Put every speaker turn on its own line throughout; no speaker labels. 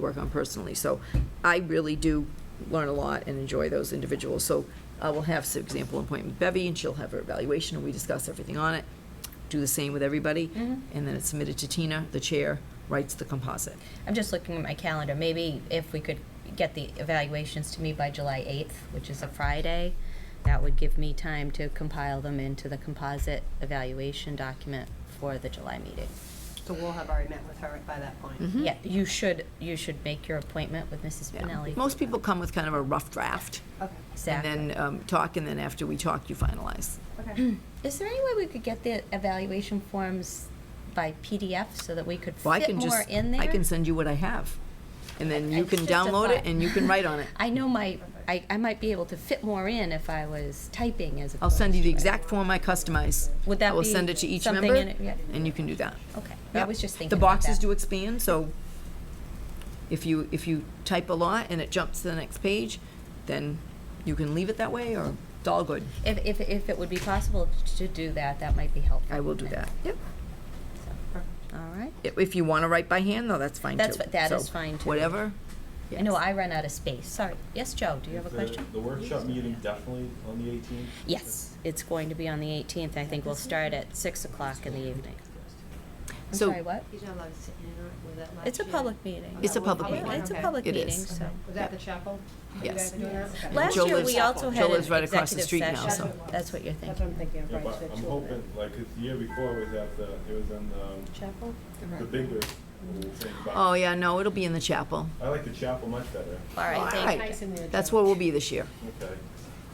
work on personally. So I really do learn a lot and enjoy those individuals. So I will have, for example, an appointment with Bevy, and she'll have her evaluation, and we discuss everything on it. Do the same with everybody,
Mm-hmm.
and then it's submitted to Tina, the chair, writes the composite.
I'm just looking at my calendar. Maybe if we could get the evaluations to me by July 8th, which is a Friday, that would give me time to compile them into the composite evaluation document for the July meeting.
So we'll have already met with her by that point.
Yeah, you should, you should make your appointment with Mrs.
Mm-hmm. Yeah.
Spinelli.
Most people come with kind of a rough draft,
Okay,
and
Exactly.
then um, talk, and then after we talk, you finalize.
okay.
Is there any way we could get the evaluation forms by PDF so that we could
Well, I
fit
can
more
just,
in there?
I can send you what I have, and then
I-
you can
it's just a
download it
thought.
and you can write on it.
I know my, I, I might be able to fit more in if I was typing as
I'll send you the
opposed to-
exact form I customize.
Would that
I will
be
send it to each
something
member,
in it? Yeah.
and you can do that.
Okay, I
Yep.
was just thinking
The
about
boxes
that.
do expand, so if you, if you type a lot and it jumps to the next page, then you can leave it that way, or it's all good.
If, if, if it would be possible to do that, that might be helpful.
I will do that. Yep.
All right.
I- If you want to write by hand, though, that's fine, too.
That's fi- that
So,
is fine, too.
Whatever.
I know
Yes.
I ran out of space. Sorry. Yes, Joe, do you have a
The-
question?
The workshop meeting definitely on the 18th?
Yes, it's going to be on the 18th. I think we'll start at 6 o'clock in the evening. I'm
So-
sorry, what?
He's not allowed to sit in and out with that last
It's a
year.
public meeting.
It's a public
Yeah,
meeting.
It's a
Okay.
public
It
meeting,
is.
so.
Was that the chapel? You
Yes.
guys doing that? Okay.
Last
Joe
year,
lives-
we also
Joe
had an
lives right across the
executive
street now,
session.
so-
That's what you're
That's what I'm
thinking.
thinking,
Yeah,
right,
but
so
I'm
two of them.
hoping, like, 'cause the year before was at the, it was in the,
Chapel?
the bigger thing,
Oh,
but
yeah, no, it'll be in the chapel.
I like the chapel much better.
All right,
All
thank
right.
Nice in there,
That's
Joe.
where we'll be this year.
Okay.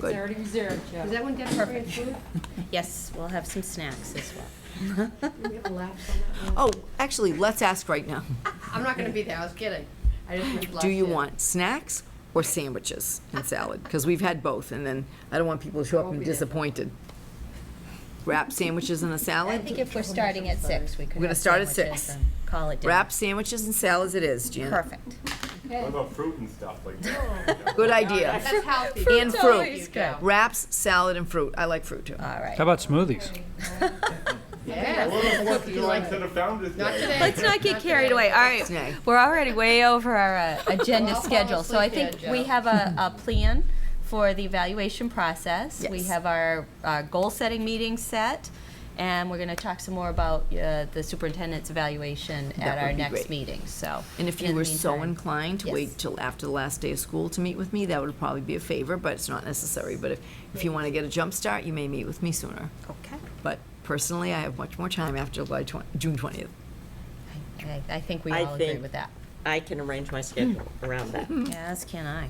Good.
Is that one definitely food?
you. Yes, we'll have some snacks as well.
We have a lapse on that
Oh,
one.
actually, let's ask right now.
I'm not gonna be there, I was kidding. I just moved last
Do you
year.
want snacks or sandwiches and salad? Because we've had both, and then I don't want people to show up
won't
and
be there.
disappointed. Wrap sandwiches and a
I
salad?
think if we're starting at 6, we could
We're gonna
have
start at
sandwiches
six.
and Call it dinner.
Wrap sandwiches and salads it is, Jan.
Perfect.
What about fruit and stuff like that?
Good
That's
idea.
healthy.
And
Fruit's always
fruit.
good.
Wraps, salad, and fruit. I like fruit, too.
All right.
How about smoothies?
Yeah.
Well, let's work you like to the Founder's Day.
Not today.
Let's not get carried away. All right,
Okay.
we're already way over our uh, agenda
I'll fall
schedule, so I
asleep
think
there,
we
Joe.
have a, a plan for the evaluation process. We
Yes.
have our, our goal-setting meeting set, and we're going to talk some more about uh, the superintendent's evaluation
That
at our
would be
next
great.
meeting. So,
And if you
in the
were so
meantime-
inclined to
Yes.
wait till after the last day of school to meet with me, that would probably be a favor, but it's not necessary. But if, if you want to get a jump start, you may meet with me sooner.
okay,
But personally, I have much more time after July 20, June 20th.
I- I, I think we
I
all agree
think-
with that.
I can arrange my schedule around that.
As can I.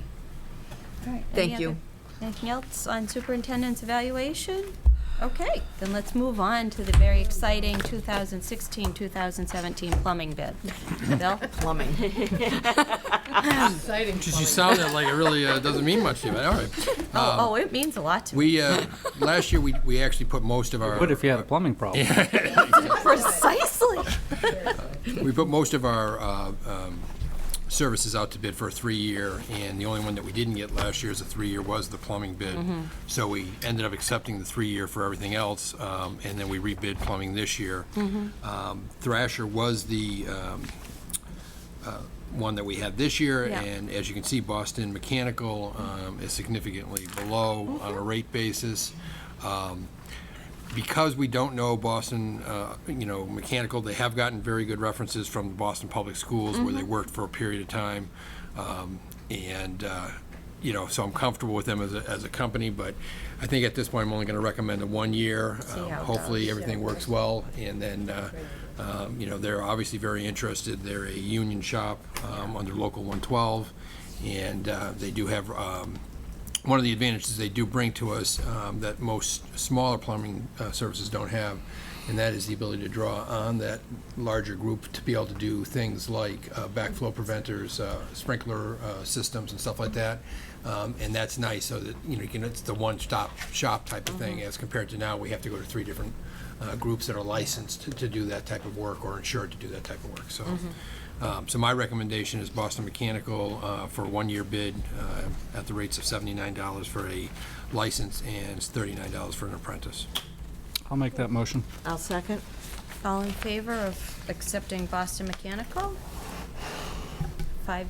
All right.
Hmm. Thank
any
you.
other- Anything else on superintendent's evaluation? Okay, then let's move on to the very exciting 2016-2017 plumbing bid. Bill?
Plumbing.
Exciting.
Just you sounded like it really uh, doesn't mean much to you, but all right. Um,
Oh, oh, it means a lot to me.
We, uh, last year, we, we actually put most of our.
What if you had a plumbing problem?
Precisely.
We put most of our uh, um, services out to bid for a three-year, and the only one that we didn't get last year as a three-year was the plumbing bid. So we ended up accepting the three-year for everything else, um, and then we rebid plumbing this year. Um, Thrasher was the um, uh, one that we had this year,
Yeah.
and as you can see, Boston Mechanical um, is significantly below on a rate basis. Um, because we don't know Boston, uh, you know, mechanical, they have gotten very good references from the Boston Public Schools where
Mm-hmm.
they worked for a period of time. Um, and, uh, you know, so I'm comfortable with them as a, as a company, but I think at this point, I'm only going to recommend a one year.
See
Um,
how it
Hopefully,
goes.
everything works well. And then, uh, um, you know, they're obviously very interested. They're a union shop um, under Local 112. And uh, they do have um, one of the advantages they do bring to us um, that most smaller plumbing uh, services don't have, and that is the ability to draw on that larger group to be able to do things like uh, backflow preventers, uh, sprinkler uh, systems, and stuff like that. Um, and that's nice, so that you know, you can, it's the one-stop shop type of thing, as compared to now we have to go to three different uh, groups that are licensed to, to do that type of work or insured to do that type of work. So, um, So my recommendation is Boston Mechanical uh, for a one-year bid uh, at the rates of $79 for a license and $39 for an apprentice.
I'll make that motion.
I'll second.
All in favor of accepting Boston Mechanical? five